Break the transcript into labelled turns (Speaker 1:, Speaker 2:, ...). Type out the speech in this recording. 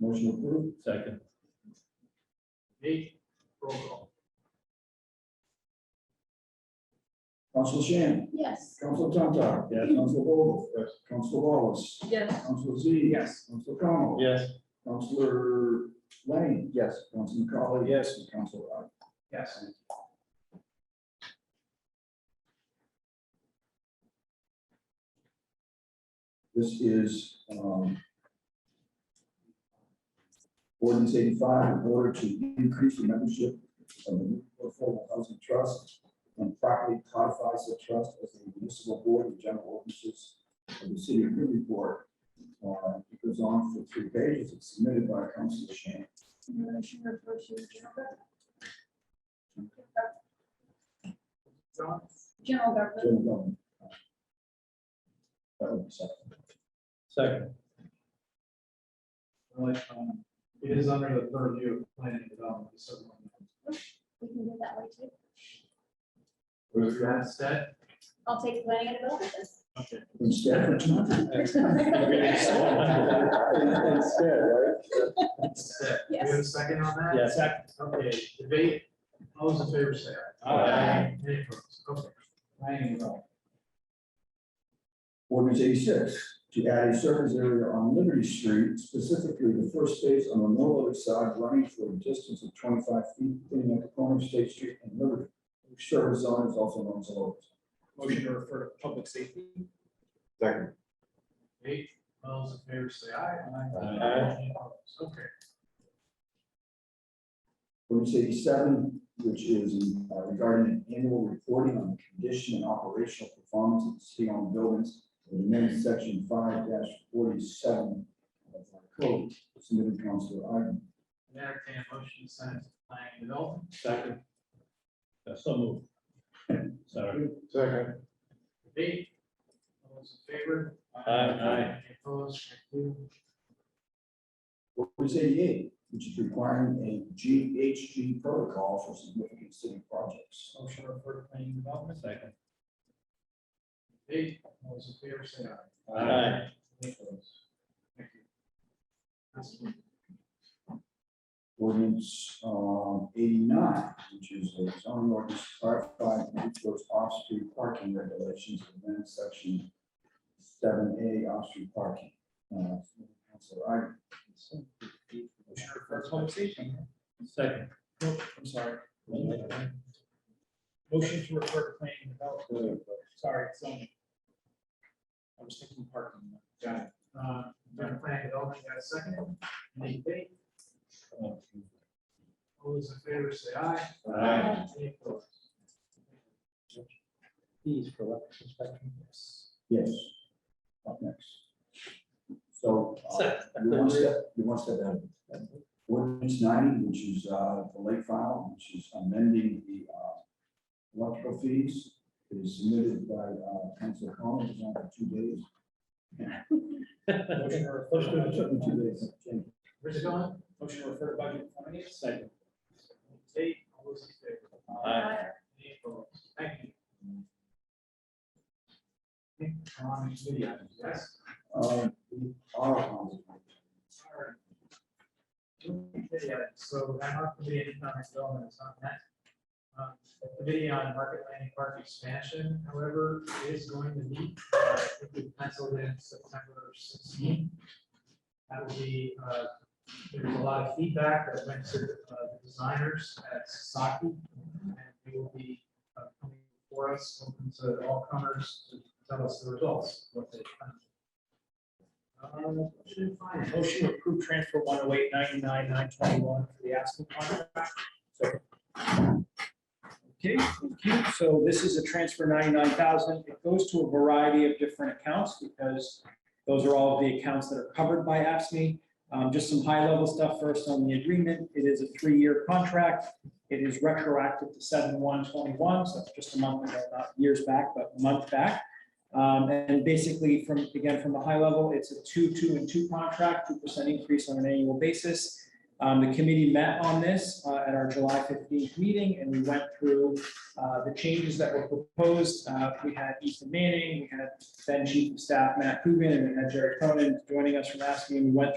Speaker 1: Motion approved.
Speaker 2: Second.
Speaker 3: Eight, roll call.
Speaker 1: Council Shan.
Speaker 4: Yes.
Speaker 1: Council Tontar.
Speaker 2: Yes.
Speaker 1: Council Vogel. Yes. Council Wallace.
Speaker 4: Yes.
Speaker 1: Council Z. Yes. Council Connell.
Speaker 2: Yes.
Speaker 1: Councilor Lane. Yes. Council McCauley. Yes. And Council Rod.
Speaker 3: Yes.
Speaker 1: This is, um, ordinance eighty-five, in order to increase the membership of the Affordable Housing Trust and properly codifies the trust as the municipal board of general officers of the city of Newburyport. Uh, it goes on for three pages. It's submitted by Councilor Shan.
Speaker 4: Motion to approve general
Speaker 3: John,
Speaker 4: gov- general government.
Speaker 1: General government. That would be second.
Speaker 2: Second.
Speaker 3: like, um, it is under the purview of planning and development, so.
Speaker 4: We can do it that way too.
Speaker 3: With um, that said,
Speaker 4: I'll take planning and development.
Speaker 3: okay,
Speaker 1: Instead of tonight. Instead, right?
Speaker 3: that's it. Do
Speaker 4: Yes.
Speaker 3: we have a second on that?
Speaker 2: Yes. Second.
Speaker 3: Okay, debate, all those in favor say aye.
Speaker 2: Aye.
Speaker 3: Any opposed? Okay. Planning and development.
Speaker 1: Ordinance eighty-six, to add a surface area on Liberty Street, specifically the first phase on the northerly side running for a distance of twenty-five feet between the corner of State Street and Liberty. which Service zone is also known as Lowe's.
Speaker 3: Motion to refer to public safety.
Speaker 5: Second.
Speaker 3: Eight, all those in favor say aye.
Speaker 2: Aye.
Speaker 3: Any opposed? Okay,
Speaker 1: Ordinance eighty-seven, which is uh, regarding an annual reporting on the condition and operational performance of the city-owned buildings, in amendment section five forty-seven of our code, submitted Councilor Ivan.
Speaker 3: and entertain a motion to send it to planning and development.
Speaker 2: Second. Uh, So moved. Sorry.
Speaker 5: Second.
Speaker 3: Debate, all those in favor?
Speaker 2: Aye.
Speaker 3: Any opposed? Thank you.
Speaker 1: Ordinance eighty-eight, which is requiring a GHG protocol for significant city projects.
Speaker 3: Motion to refer to planning and development.
Speaker 2: Second.
Speaker 3: Debate, all those in favor say aye.
Speaker 2: Aye.
Speaker 3: Any opposed? Thank you. Councilman,
Speaker 1: Ordinance um, eighty-nine, which is a zoning ordinance clarified towards off-street parking regulations, and then section seven A, off-street parking. Uh, Councilor Ivey.
Speaker 3: Motion to refer to public safety.
Speaker 2: Second.
Speaker 3: Nope, I'm sorry. Motion to refer to planning and development. Sorry, it's only. I was thinking parking. Got it. Uh, done planning and development, got a second? Any debate?
Speaker 1: uh,
Speaker 3: All those in favor say aye.
Speaker 2: Aye.
Speaker 3: Any opposed?
Speaker 2: These for election spectrum. Yes.
Speaker 1: Yes. Up next. So. uh, You're one step, you're one step ahead. of me. Ordinance ninety, which is uh, the late file, which is amending the uh, electrical fees, It is submitted by uh, Council Collins, it's on for two days.
Speaker 3: Motion to
Speaker 1: It
Speaker 3: refer
Speaker 1: took me
Speaker 3: to.
Speaker 1: two days.
Speaker 3: Where's it going? Motion to refer to budget committee.
Speaker 2: Second.
Speaker 3: Debate, all those in favor?
Speaker 2: Aye.
Speaker 3: Any opposed? Thank you. Okay, on to the items, Yes.
Speaker 1: Uh, we are on it.
Speaker 3: Yeah, so I'm not committee on economic development, it's not that. Um, The committee on market landing park expansion, however, is going to meet, uh, I think we penciled in September sixteen. That will be, uh, there's a lot of feedback that went to uh, the designers at Sasaki. And they will be uh, coming for us, open to all comers to tell us the results, what they. found. Um, should find a Motion to approve transfer one oh eight ninety-nine nine twenty-one for the Aspen contract.
Speaker 6: Okay, thank you. So this is a transfer ninety-nine thousand. It goes to a variety of different accounts because those are all of the accounts that are covered by AFSMI. Um, just some high-level stuff first on the agreement. It is a three-year contract. It is retroactive to seven one twenty-one, so that's just a month ago, not years back, but a month back. Um, and basically from, again, from the high level, it's a two, two, and two contract, two percent increase on an annual basis. Um, the committee met on this, uh, at our July fifteenth meeting, and we went through, uh, the changes that were proposed. Uh, we had Ethan Manning, we had then Chief of Staff Matt Coogan, and we had Jared Cronin joining us from ASME, and we went